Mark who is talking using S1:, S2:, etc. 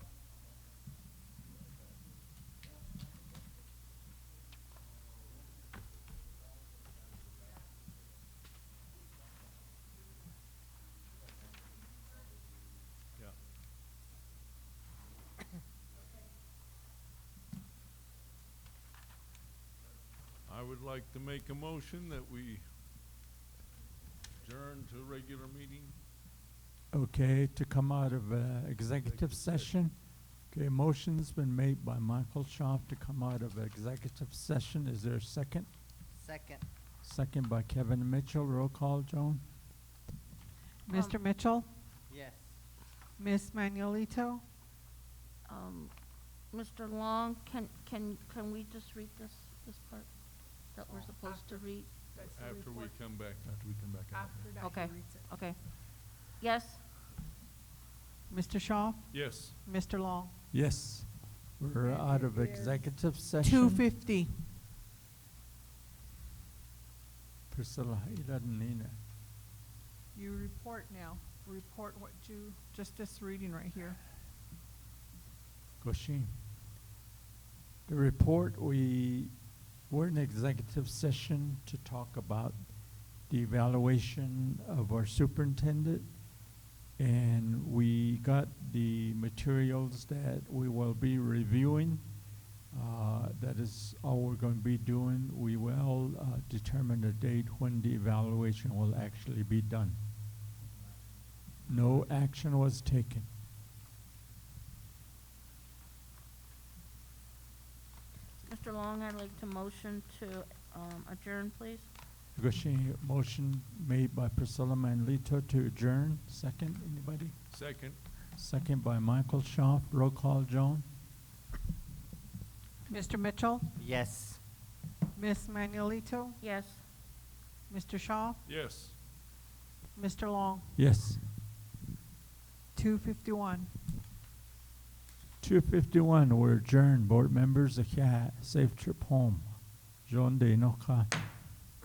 S1: would like to make a motion that we adjourn to a regular meeting.
S2: Okay, to come out of uh, executive session. Okay, motion's been made by Michael Schaaf to come out of executive session. Is there a second?
S3: Second.
S2: Second by Kevin Mitchell. Roll call, Joan?
S4: Mr. Mitchell,
S3: Yes.
S4: Ms. Manuelito,
S5: Um, Mr. Long, can, can, can we just read this, this part that
S6: Oh,
S5: we're supposed to read?
S6: That's the
S1: After we
S6: report.
S1: come back.
S7: After we come back out of
S6: After
S7: here.
S6: that,
S5: Okay.
S6: he reads it.
S5: Okay. Yes?
S4: Mr. Shaw,
S1: Yes,
S4: Mr. Long.
S2: Yes. We're
S6: Okay,
S2: out of
S6: we're-
S2: executive session.
S4: Two fifty.
S2: Priscilla, you didn't need it.
S6: You report now, report what you, just this reading right here.
S2: Gosheen. The report, we, we're in executive session to talk about the evaluation of our superintendent. And we got the materials that we will be reviewing. Uh, That is all we're going to be doing. We will uh, determine the date when the evaluation will actually be done. No action was taken.
S5: Mr. Long, I'd like to motion to, um, adjourn, please.
S2: Negotiating motion made by Priscilla Manlito to adjourn. Second, anybody?
S1: second.
S2: Second by Michael Schaaf. Roll call, Joan?
S4: Mr. Mitchell,
S3: Yes.
S4: Ms. Manuelito,
S5: Yes.
S4: Mr. Shaw,
S1: Yes.
S4: Mr. Long,
S2: Yes.
S4: two fifty-one.
S2: Two fifty-one, we're adjourned. Board members, a safe trip home. Joan de Inoka.